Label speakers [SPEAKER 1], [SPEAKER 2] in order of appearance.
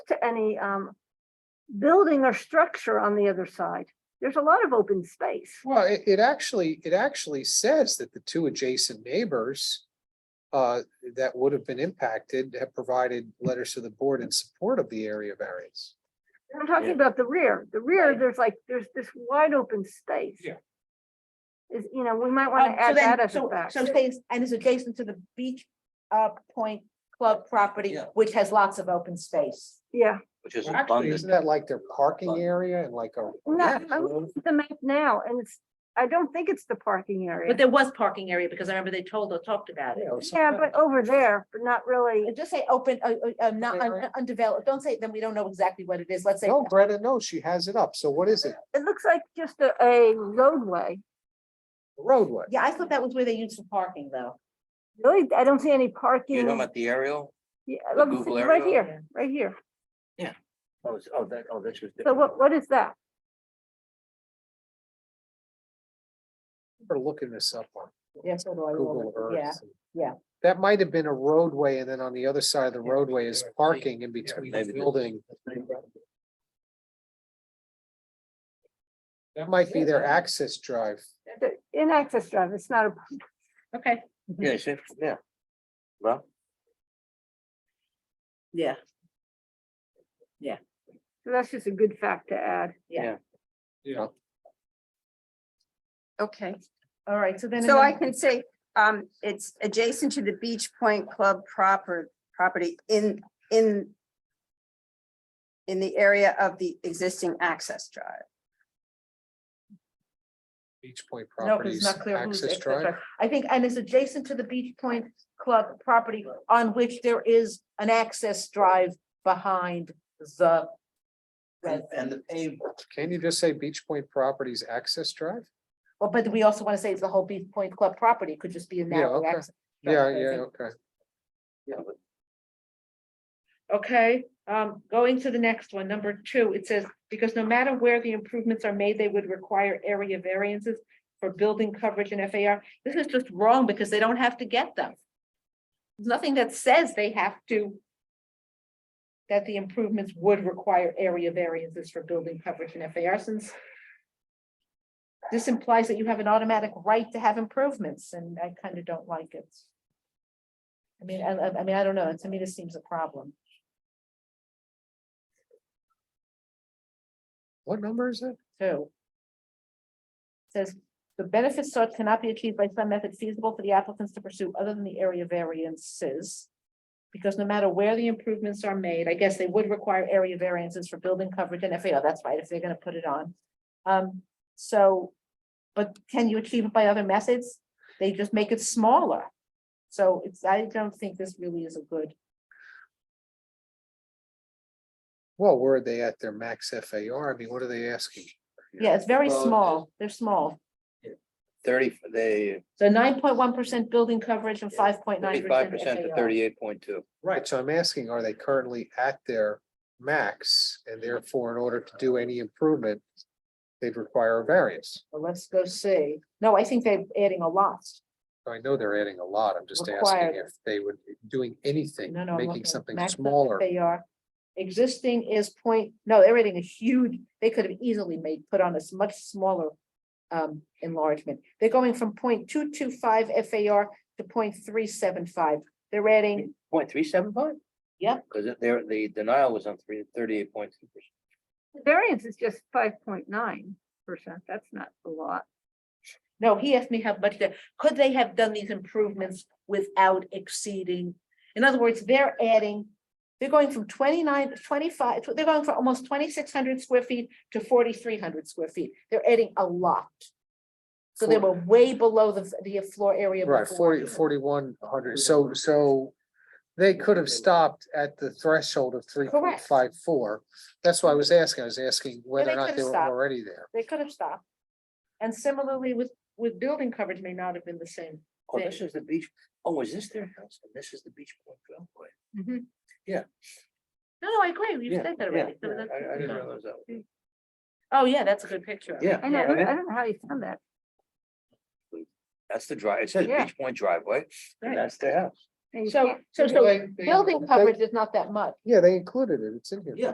[SPEAKER 1] to any um building or structure on the other side. There's a lot of open space.
[SPEAKER 2] Well, it, it actually, it actually says that the two adjacent neighbors uh, that would have been impacted have provided letters to the board in support of the area variance.
[SPEAKER 1] I'm talking about the rear. The rear, there's like, there's this wide open space.
[SPEAKER 2] Yeah.
[SPEAKER 1] Is, you know, we might want
[SPEAKER 3] Um,
[SPEAKER 1] to
[SPEAKER 3] so
[SPEAKER 1] add
[SPEAKER 3] then-
[SPEAKER 1] that as a
[SPEAKER 3] so-
[SPEAKER 1] fact.
[SPEAKER 3] So stays, and is adjacent to the beach, uh, point club property,
[SPEAKER 4] Yeah.
[SPEAKER 3] which has lots of open space.
[SPEAKER 1] Yeah,
[SPEAKER 4] which is
[SPEAKER 2] Actually, isn't
[SPEAKER 4] abundant.
[SPEAKER 2] that like their parking area and like a?
[SPEAKER 1] no,
[SPEAKER 2] ranch
[SPEAKER 1] I'm
[SPEAKER 2] road?
[SPEAKER 1] looking at the map now and it's, I don't think it's the parking area.
[SPEAKER 5] But there was parking area because I remember they told or talked about
[SPEAKER 2] Yeah,
[SPEAKER 5] it.
[SPEAKER 2] or
[SPEAKER 1] Yeah,
[SPEAKER 2] something.
[SPEAKER 1] but over there, but not really.
[SPEAKER 3] Uh, Just say open, uh, uh, uh, not
[SPEAKER 2] Wait,
[SPEAKER 3] un-
[SPEAKER 2] wait.
[SPEAKER 3] undeveloped, don't say, then we don't know exactly what it is, let's say.
[SPEAKER 2] No, Greta, no, she has it up. So what is it?
[SPEAKER 1] It looks like just a, a roadway.
[SPEAKER 2] Roadway.
[SPEAKER 3] Yeah, I thought that was where they used for parking, though.
[SPEAKER 1] Really, I don't see any
[SPEAKER 4] You know
[SPEAKER 1] parking.
[SPEAKER 4] about the aerial?
[SPEAKER 1] Yeah,
[SPEAKER 4] the
[SPEAKER 1] look,
[SPEAKER 4] Google
[SPEAKER 1] it's right
[SPEAKER 4] aerial?
[SPEAKER 1] here, right here.
[SPEAKER 4] Oh, it's- oh, that, oh, this was.
[SPEAKER 1] So
[SPEAKER 4] different.
[SPEAKER 1] what, what is that?
[SPEAKER 2] We're looking this up on
[SPEAKER 3] Yeah, so do I.
[SPEAKER 2] Google
[SPEAKER 3] Yeah.
[SPEAKER 2] Earth.
[SPEAKER 3] yeah.
[SPEAKER 2] That might have been a roadway and then on the other side of the roadway is
[SPEAKER 4] Yeah, I
[SPEAKER 2] parking in
[SPEAKER 4] Yeah,
[SPEAKER 2] between
[SPEAKER 4] maybe
[SPEAKER 2] the
[SPEAKER 4] the-
[SPEAKER 2] building. That might be their access drive.
[SPEAKER 1] The- In access drive, it's not a,
[SPEAKER 5] Okay.
[SPEAKER 4] Yeah, see, yeah. Well,
[SPEAKER 5] Yeah.
[SPEAKER 1] that's just a good fact to add.
[SPEAKER 2] Yeah.
[SPEAKER 6] Okay,
[SPEAKER 3] All right, so then.
[SPEAKER 6] so I
[SPEAKER 3] another-
[SPEAKER 6] can say, um, it's adjacent to the Beach Point Club proper, property in, in. In the area of the existing access drive.
[SPEAKER 2] Beach Point
[SPEAKER 3] No, 'cause it's
[SPEAKER 2] Properties
[SPEAKER 3] not clear who's
[SPEAKER 2] access
[SPEAKER 3] access drive.
[SPEAKER 2] drive.
[SPEAKER 3] I think, and it's adjacent to the Beach Point Club property on which there is an access drive behind the.
[SPEAKER 4] and, and the paved,
[SPEAKER 2] Can you just say Beach Point Properties access drive?
[SPEAKER 3] Well, but we also want to say it's the whole Beach Point Club property, it could just be a narrow
[SPEAKER 2] okay.
[SPEAKER 3] access. Right,
[SPEAKER 2] Yeah,
[SPEAKER 3] right,
[SPEAKER 2] yeah,
[SPEAKER 3] right.
[SPEAKER 2] okay.
[SPEAKER 4] yeah, but
[SPEAKER 5] Okay, um, going to the next one, number two, it says, because no matter where the improvements are made, they would require area variances for building coverage and FAR. This is just wrong because they don't have to get them. There's Nothing that says they have to that the improvements would require area variances for building coverage and FAR since this implies that you have an automatic right to have improvements and I kind of don't like it. I mean, I, I- I mean, I don't know. To me, this seems a problem.
[SPEAKER 2] What number is it?
[SPEAKER 5] two. Says, the benefits sought cannot be achieved by some method feasible for the applicants to pursue other than the area variances. Because no matter where the improvements are made, I guess they would require area variances for building coverage and FAR, that's right, if they're gonna put it on. Um, so, but can you achieve it by other methods? They just make it smaller. So it's, I don't think this really is a good,
[SPEAKER 2] Well, where are they at their max FAR? I mean, what are they asking?
[SPEAKER 5] yeah, it's very
[SPEAKER 4] Well, it-
[SPEAKER 5] small, they're small.
[SPEAKER 4] thirty, they,
[SPEAKER 5] So nine point one percent building coverage and five point nine
[SPEAKER 4] thirty-five percent to
[SPEAKER 5] FAR.
[SPEAKER 4] thirty-eight point two.
[SPEAKER 2] Right, so I'm asking, are they currently at their max and therefore in order to do any improvement, they'd require a variance?
[SPEAKER 5] Well, let's go see. No, I think they're adding a lot.
[SPEAKER 2] I know they're adding a lot. I'm just asking
[SPEAKER 5] Required.
[SPEAKER 2] if they would be doing anything,
[SPEAKER 5] No, no. I'm looking
[SPEAKER 2] making
[SPEAKER 5] at
[SPEAKER 2] something
[SPEAKER 5] max that
[SPEAKER 2] smaller.
[SPEAKER 5] They are. Existing is point, no, they're adding a huge, they could have easily made, put on a s- much smaller um, enlargement. They're going from point two two five FAR to point three seven five. They're adding,
[SPEAKER 4] Point three seven five?
[SPEAKER 5] Yeah.
[SPEAKER 4] Cause it, there, the denial was on three, thirty-eight point two percent.
[SPEAKER 1] The Variance is just five point nine percent. That's not a lot.
[SPEAKER 5] no, he asked me how much, they- could they have done these improvements without exceeding? In other words, they're adding, they're going from 29 to 25. tw- they're going from almost twenty-six hundred square feet to forty-three hundred square feet. They're adding a lot. So they were way below the, the floor area.
[SPEAKER 2] Right, forty,
[SPEAKER 5] beforehand.
[SPEAKER 2] forty-one hundred, so, so they could have stopped at the threshold of three point
[SPEAKER 5] Correct.
[SPEAKER 2] five four. That's why I was asking, I was asking whether or
[SPEAKER 5] they could
[SPEAKER 2] not
[SPEAKER 5] have
[SPEAKER 2] they were
[SPEAKER 5] stopped.
[SPEAKER 2] already there.
[SPEAKER 5] They could have stopped. And similarly with, with building coverage may not have been the same.
[SPEAKER 4] Oh,
[SPEAKER 5] They-
[SPEAKER 4] this is the beach, oh, is this their house? And this is the beach point driveway?
[SPEAKER 5] No, no, I agree. You
[SPEAKER 4] Yeah,
[SPEAKER 5] said that
[SPEAKER 4] yeah,
[SPEAKER 5] already. So
[SPEAKER 4] yeah,
[SPEAKER 5] that's-
[SPEAKER 4] I, I didn't realize that.
[SPEAKER 5] Oh, yeah, that's a good picture. of it.
[SPEAKER 4] Yeah.
[SPEAKER 1] I know,
[SPEAKER 4] Yeah.
[SPEAKER 1] I don't know how you found that.
[SPEAKER 4] That's the drive, it says
[SPEAKER 1] Yeah.
[SPEAKER 4] beach point driveway,
[SPEAKER 5] Right.
[SPEAKER 4] and that's their house.
[SPEAKER 1] And you
[SPEAKER 5] So,
[SPEAKER 1] can't-
[SPEAKER 5] so, so
[SPEAKER 2] They- they-
[SPEAKER 5] building
[SPEAKER 2] they-
[SPEAKER 5] coverage is not that much.
[SPEAKER 2] Yeah, they included it. It's in here.
[SPEAKER 4] Yeah.